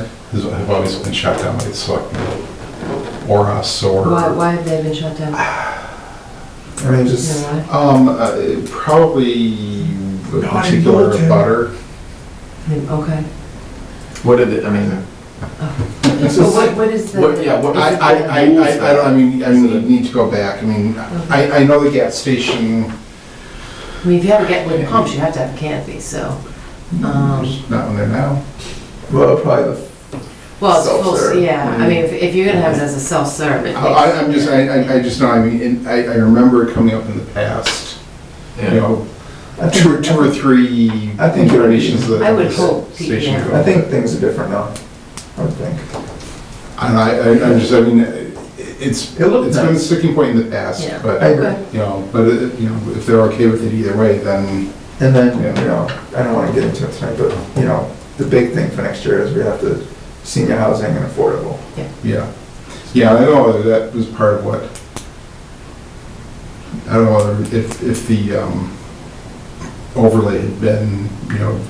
has- have obviously been shot down by the selectmen or us Why, or, why have they been shut down? I mean, You just, know why? um, uh, probably a No, I particular know, Jim. butter. I mean, Okay. What did it, I mean, This So is- what, what is the? What- yeah, what- I, I, I, I- I don't, I mean, I mean, you need to go back, I mean, I, I know the gas station, I mean, if you have to get wooden pumps, you have to have canopy, so, um, there's not one there now. well, probably the, well, it's Self-serve. full, yeah, I mean, if, if you're gonna have it as a self-serve, it I, I- makes- I'm just, I, I- I just know, I mean, and I, I remember it coming up in the past, you yeah. know, I think- two, or- two or three I think- iterations of the I would gas hope, station. yeah. go. I think things are different now, I would think. And I, I, I'm just, I mean, it's, it's It looked been a nice. sticking point in the past, Yeah. but, I agree. you know, but, it- you know, if they're okay with it either way, then, And then, Yeah. you know, I don't wanna get into it tonight, but, you know, the big thing for next year is we have to senior housing and affordable. yeah. Yeah, I know that was part of what, I don't know if, if the, um, overlay had been, you know,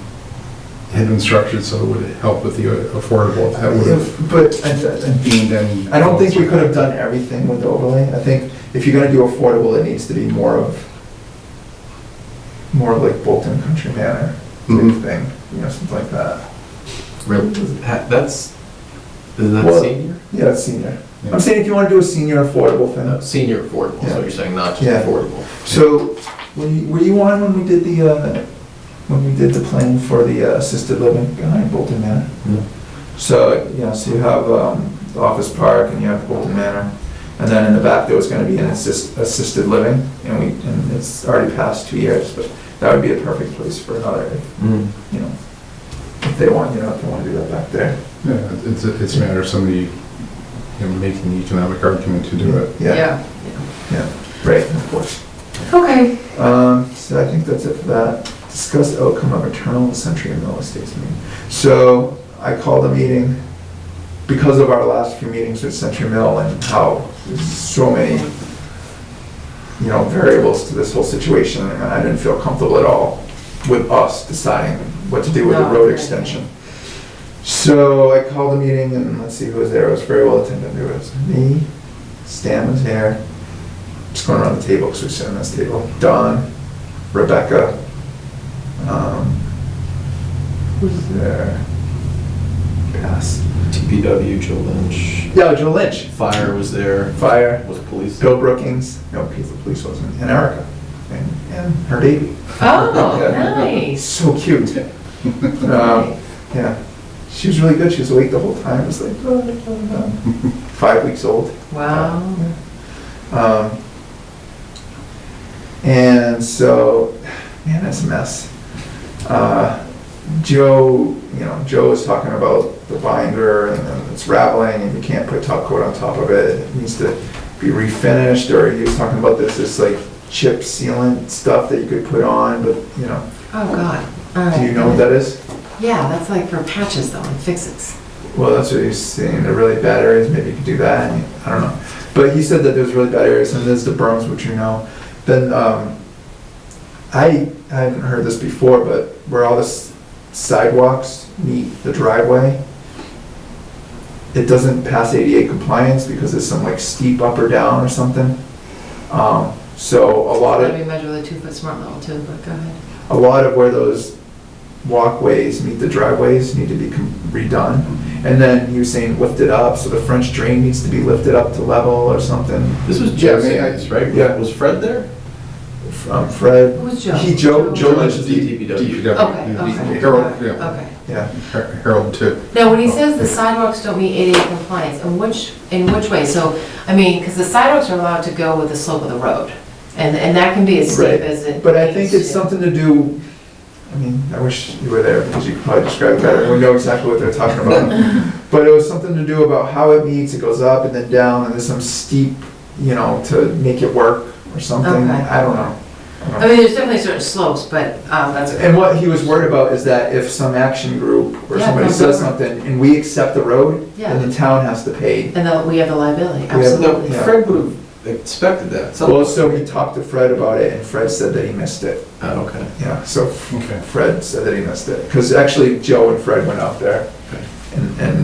had been structured so it would help with the uh, affordable, that would have But I- gained any. I, I don't think we could have done everything with the overlay. I think if you're gonna do affordable, it needs to be more of, more of like Bolton Country Manor Mhm. type thing, you know, something like that. Really? Ha- That's, is that Well- senior? Yeah, that's senior. Yeah. I'm saying if you wanna do a senior affordable thing, No, Senior affordable, so Yeah. you're saying not Yeah. just affordable. So, were you, were you on when we did the, uh, when we did the plan for the uh, assisted living behind Bolton Manor? Yeah. So, you know, so you have, um, the Office Park and you have Bolton Manor, and then in the back, there was gonna be an assist, assisted living, and we, and it's already past two years, but that would be a perfect place for another, you know, if they want, you know, if they wanna do that back there. Yeah, it's, a- it's a matter of somebody, you know, making the economic argument to do it. Yeah, Yeah. right, of course. Okay, Um, so I think that's it for that. Discuss outcome of maternal and century mill estates meeting. So I called a meeting because of our last few meetings with Century Mill and how there's so many, you know, variables to this whole situation, and I didn't feel comfortable at all with us deciding what to do with the No, okay. road extension. So I called a meeting, and let's see who was there, it was very well attended, there was me, Stan was here, just going around the table, because we're sitting on this table, Don, Rebecca, um, who's there? Pass. TPW, Joe Lynch, Yeah, Joe Lynch. fire was there, Fire. was police. Bill Brookings. No, because the police wasn't. And Erica. And, and her baby. oh, It's nice. so cute. Um, yeah. She was really good. She was awake the whole time. It was like, "Oh, oh, oh." five weeks old. Wow. Um, and so, man, that's a mess. Uh, Joe, you know, Joe was talking about the binder and then it's rattling and you can't put top coat on top of it. It needs to be refinished, or he was talking about this, this like chip sealant stuff that you could put on, but, you know, Oh, God, all right. do you know what that is? Yeah, that's like for patches though, and fixes. Well, that's what he's saying, the really bad areas, maybe you could do that, and, I don't know. But he said that there's really bad areas, and there's the berms, which you know. Then, um, I, I haven't heard this before, but where all the s- sidewalks meet the driveway, it doesn't pass ADA compliance because it's some like steep up or down or something. Um, so a lot of Let me measure the two-foot smart level too, but go ahead. a lot of where those walkways meet the driveways need to be com- redone. And then he was saying lift it up, so the French drain needs to be lifted up to level or something. This was Yeah, I Joe mean, I- Sands, right? yeah. Was Fred there? From Fred, Who was Joe? He- Joe- Joe Lynch The is the TPW. Okay, The- okay, Harold, yeah, okay. yeah. Har- Harold too. Now, when he says the sidewalks don't meet ADA compliance, in which, in which way? So, I mean, because the sidewalks are allowed to go with the slope of the road, and, and that can be as steep Right. as it. But I think needs it's to. something to do, I mean, I wish you were there because you could probably describe it better. We know exactly what they're talking about. But it was something to do about how it meets, it goes up and then down and there's some steep, you know, to make it work or something. Okay. I don't know. I don't know. I mean, there's definitely certain slopes, but, um, that's. And what he was worried about is that if some action group or Yeah, somebody comes says over. something and we accept the road, then the town has to pay. And then we have the liability, have the- No, absolutely. yeah. Fred would have expected that. Some- Well, so he talked to Fred about it and Fred said that he missed it. Oh, okay. Yeah, so Okay. Fred said that he missed it. Because actually Joe and Fred went out there and, and